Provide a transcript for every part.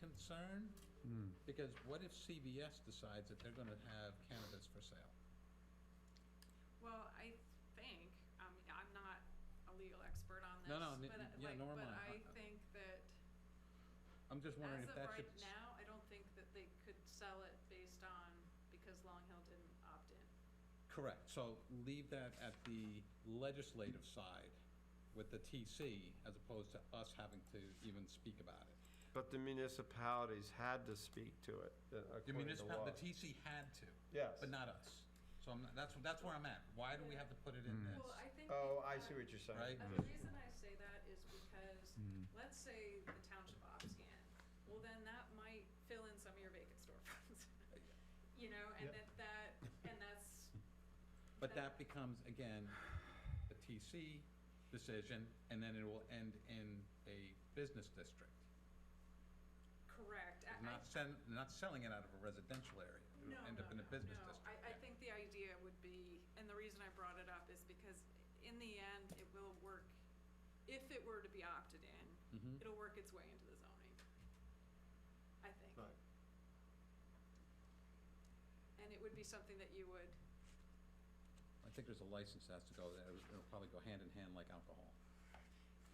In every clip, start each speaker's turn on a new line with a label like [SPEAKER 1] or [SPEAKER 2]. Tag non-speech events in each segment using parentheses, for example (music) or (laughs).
[SPEAKER 1] concern, because what if CVS decides that they're gonna have cannabis for sale?
[SPEAKER 2] Well, I think, I mean, I'm not a legal expert on this,
[SPEAKER 1] No, no, n-
[SPEAKER 2] but I-
[SPEAKER 1] n- yeah,
[SPEAKER 2] like,
[SPEAKER 1] nor am
[SPEAKER 2] but
[SPEAKER 1] I.
[SPEAKER 2] I think that
[SPEAKER 1] I'm just wondering
[SPEAKER 2] as
[SPEAKER 1] if
[SPEAKER 2] of
[SPEAKER 1] that should.
[SPEAKER 2] right now, I don't think that they could sell it based on, because Long Hill didn't opt in.
[SPEAKER 1] Correct, so leave that at the legislative side with the TC, as opposed to us having to even speak about it.
[SPEAKER 3] But the municipalities had to speak to it,
[SPEAKER 1] The
[SPEAKER 3] uh, according to
[SPEAKER 1] municipal,
[SPEAKER 3] law.
[SPEAKER 1] the TC had to.
[SPEAKER 3] Yes.
[SPEAKER 1] But not us. So I'm, not- that's, that's where I'm at. Why do we have to put it in this?
[SPEAKER 2] Well, I think.
[SPEAKER 3] Oh,
[SPEAKER 2] that,
[SPEAKER 3] I
[SPEAKER 2] uh,
[SPEAKER 3] see what you're
[SPEAKER 1] Right.
[SPEAKER 3] saying.
[SPEAKER 2] Uh, The reason I say that is because, let's say the township opts in, well, then that might fill in some of your vacant storefronts. (laughs) You know, and
[SPEAKER 3] Yep.
[SPEAKER 2] that, that, and that's,
[SPEAKER 1] But that becomes, again, a TC decision, and then it will end in a business district.
[SPEAKER 2] Correct. I- I-
[SPEAKER 1] Not send, not selling it out of a residential area. It'll
[SPEAKER 2] No,
[SPEAKER 1] End
[SPEAKER 2] no,
[SPEAKER 1] up in a
[SPEAKER 2] no,
[SPEAKER 1] business
[SPEAKER 2] no.
[SPEAKER 1] district.
[SPEAKER 2] I, I think the idea would be, and the reason I brought it up is because in the end, it will work, if it were to be opted in,
[SPEAKER 1] Mhm.
[SPEAKER 2] it'll work its way into the zoning. I think.
[SPEAKER 3] Right.
[SPEAKER 2] And it would be something that you would,
[SPEAKER 1] I think there's a license that has to go there. It'll probably go hand in hand like alcohol.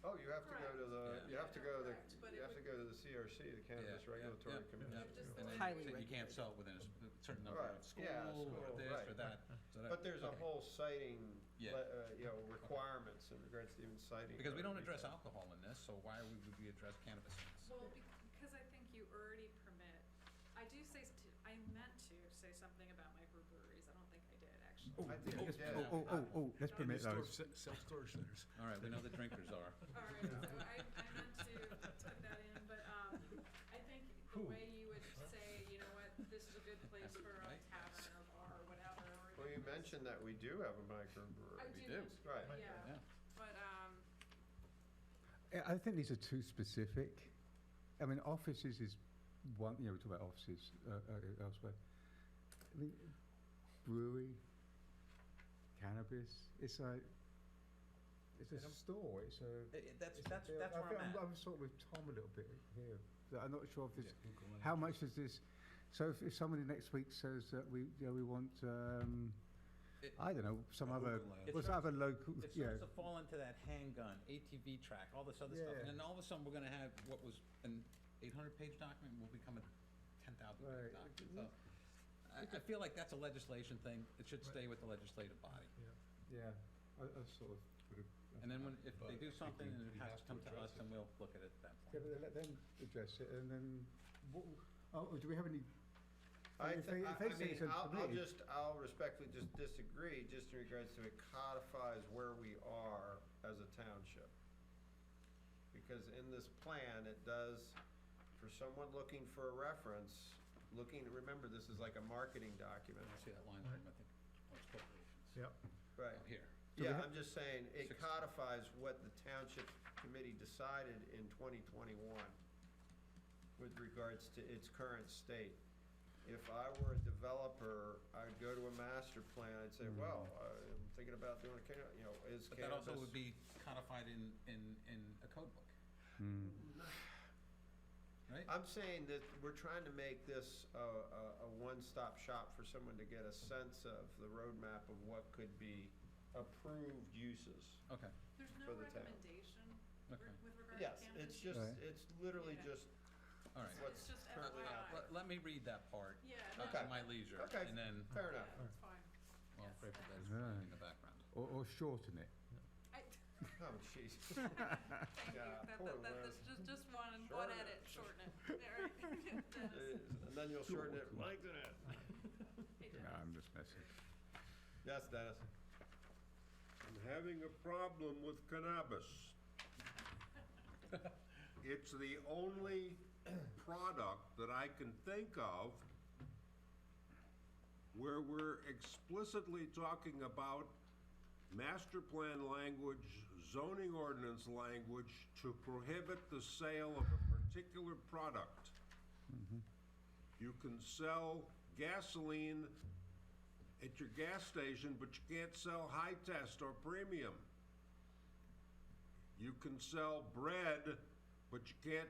[SPEAKER 3] Oh, you have to go to the,
[SPEAKER 1] Correct.
[SPEAKER 3] you have to go to
[SPEAKER 2] Correct, but it
[SPEAKER 3] the, you have to
[SPEAKER 2] would-
[SPEAKER 3] go to the CRC, the
[SPEAKER 1] Yeah,
[SPEAKER 3] Cannabis
[SPEAKER 1] yeah, yeah,
[SPEAKER 3] Regulatory
[SPEAKER 1] yeah.
[SPEAKER 3] Commission.
[SPEAKER 2] Just
[SPEAKER 3] you know.
[SPEAKER 2] the-
[SPEAKER 4] Highly
[SPEAKER 1] You can't
[SPEAKER 4] regulated.
[SPEAKER 1] sell it within a s- certain number of
[SPEAKER 3] Right, yeah,
[SPEAKER 1] school, or
[SPEAKER 3] school,
[SPEAKER 1] this, or
[SPEAKER 3] right.
[SPEAKER 1] that. so that-
[SPEAKER 3] But there's a
[SPEAKER 1] okay.
[SPEAKER 3] whole citing, le-
[SPEAKER 1] Yeah.
[SPEAKER 3] uh, you know, requirements in regards to even citing.
[SPEAKER 1] Because we don't
[SPEAKER 3] other
[SPEAKER 1] address
[SPEAKER 3] retail.
[SPEAKER 1] alcohol in this, so why would we address cannabis in this?
[SPEAKER 2] well, because I think you already permit, I do say, st- I meant to say something about microbreweries. I don't think I did, actually.
[SPEAKER 3] I think it did.
[SPEAKER 5] Oh, oh, oh, oh, let's permit
[SPEAKER 6] Store-
[SPEAKER 5] those.
[SPEAKER 6] se- Self-storage centers.
[SPEAKER 1] All right, we know the drinkers are.
[SPEAKER 2] All right, so I, I meant to put that in, but, um, I think the way you would say, you know what, this is a good place for a tavern or bar or whatever. or
[SPEAKER 3] Well, you
[SPEAKER 2] this-
[SPEAKER 3] mentioned that we do have a
[SPEAKER 2] I
[SPEAKER 3] microbrewery.
[SPEAKER 1] We
[SPEAKER 2] do,
[SPEAKER 1] do.
[SPEAKER 2] mention-
[SPEAKER 3] Right.
[SPEAKER 2] yeah,
[SPEAKER 1] Yeah.
[SPEAKER 2] but, um,
[SPEAKER 5] I I think these are too specific. I mean, offices is one, you know, we talk about offices uh, uh, elsewhere. I mean, brewery, cannabis, it's like, it's a
[SPEAKER 1] Adam?
[SPEAKER 5] store, it's a.
[SPEAKER 1] That's,
[SPEAKER 5] it's a
[SPEAKER 1] that's,
[SPEAKER 5] build-
[SPEAKER 1] that's
[SPEAKER 5] I
[SPEAKER 1] where I'm
[SPEAKER 5] think
[SPEAKER 1] at.
[SPEAKER 5] I'm sort of with Tom a little bit here. that I'm not sure if this, how much is this? So if, if somebody next week says that we, you know, we want, um,
[SPEAKER 1] It-
[SPEAKER 5] I don't know, some other,
[SPEAKER 6] overlay.
[SPEAKER 1] It
[SPEAKER 5] what's
[SPEAKER 1] starts-
[SPEAKER 5] other local,
[SPEAKER 1] It
[SPEAKER 5] yeah.
[SPEAKER 1] starts to fall into that handgun, ATV track, all this other stuff,
[SPEAKER 5] Yeah.
[SPEAKER 1] and then all of a sudden, we're gonna have what was an eight hundred page document will become a ten thousand page
[SPEAKER 5] Right.
[SPEAKER 1] document, so. I, I feel like that's a legislation thing, it should stay with the legislative body,
[SPEAKER 5] Yeah, I, I sort of. would have-
[SPEAKER 1] and then when, if they do something
[SPEAKER 6] we-
[SPEAKER 1] and it
[SPEAKER 6] we
[SPEAKER 1] has
[SPEAKER 6] have
[SPEAKER 1] to
[SPEAKER 6] to
[SPEAKER 1] come to
[SPEAKER 6] address
[SPEAKER 1] us, then we'll look at it at that
[SPEAKER 5] Yeah,
[SPEAKER 1] point.
[SPEAKER 5] but then let them address it, and then, what, oh, do we have any?
[SPEAKER 3] I
[SPEAKER 5] if they-
[SPEAKER 3] think, I
[SPEAKER 5] if they
[SPEAKER 3] I
[SPEAKER 5] say it's
[SPEAKER 3] mean, I'll, I'll
[SPEAKER 5] permitted-
[SPEAKER 3] just, I'll respectfully just disagree, just in regards to it codifies where we are as a township. Because in this plan, it does, for someone looking for a reference, looking, remember, this is like a marketing document.
[SPEAKER 1] See that line item, I think, oh, it's corporations,
[SPEAKER 6] Yep.
[SPEAKER 3] Right.
[SPEAKER 1] Oh, here,
[SPEAKER 5] we
[SPEAKER 3] Yeah,
[SPEAKER 5] have-
[SPEAKER 3] I'm just saying, it
[SPEAKER 1] Six.
[SPEAKER 3] codifies what the township committee decided in 2021 with regards to its current state. If I were a developer, I'd go to a master plan, I'd
[SPEAKER 5] Mm-hmm.
[SPEAKER 3] say, well, I'm thinking about doing a, canna- you know, is
[SPEAKER 1] but that also
[SPEAKER 3] cannabis
[SPEAKER 1] would be codified in, in, in a code book. Right?
[SPEAKER 3] I'm saying that we're trying to make this a, a, a one-stop shop for someone to get a sense of the roadmap of what could be approved uses.
[SPEAKER 1] Okay,
[SPEAKER 2] there's
[SPEAKER 3] For
[SPEAKER 2] no
[SPEAKER 3] the town.
[SPEAKER 2] recommendation
[SPEAKER 1] Okay.
[SPEAKER 2] re- with regard to
[SPEAKER 3] Yes,
[SPEAKER 2] cannabis.
[SPEAKER 3] it's just,
[SPEAKER 5] Right.
[SPEAKER 3] it's literally
[SPEAKER 2] Yeah.
[SPEAKER 3] just
[SPEAKER 1] all right.
[SPEAKER 2] It's just
[SPEAKER 3] What's currently out
[SPEAKER 2] FYI.
[SPEAKER 1] Let, let me read that part. uh,
[SPEAKER 2] Yeah, no,
[SPEAKER 1] At
[SPEAKER 3] Okay.
[SPEAKER 1] my leisure,
[SPEAKER 3] Okay.
[SPEAKER 1] and then,
[SPEAKER 3] Fair enough.
[SPEAKER 2] yeah, it's fine.
[SPEAKER 1] well,
[SPEAKER 2] Yes,
[SPEAKER 1] pray for
[SPEAKER 2] thanks.
[SPEAKER 1] those in the background.
[SPEAKER 5] Or, or shorten (laughs) it?
[SPEAKER 2] I, (laughs)
[SPEAKER 3] Oh, jeez. (laughs)
[SPEAKER 2] thank you,
[SPEAKER 3] Yeah,
[SPEAKER 2] that,
[SPEAKER 3] poor
[SPEAKER 2] that, that, that's
[SPEAKER 3] Liz.
[SPEAKER 2] just, just one,
[SPEAKER 3] Shorten
[SPEAKER 2] one
[SPEAKER 3] it.
[SPEAKER 2] edit, shorten it, there, (laughs)
[SPEAKER 3] (laughs)
[SPEAKER 2] Dennis,
[SPEAKER 3] And then you'll shorten it, lengthen it.
[SPEAKER 2] hey,
[SPEAKER 5] No,
[SPEAKER 2] Dennis.
[SPEAKER 5] I'm just messing.
[SPEAKER 3] Yes, Dennis.
[SPEAKER 7] I'm having a problem with cannabis. It's the only product that I can think of where we're explicitly talking about master plan language, zoning ordinance language to prohibit the sale of a particular product. You can sell gasoline at your gas station, but you can't sell high test or premium. You can sell bread, but you can't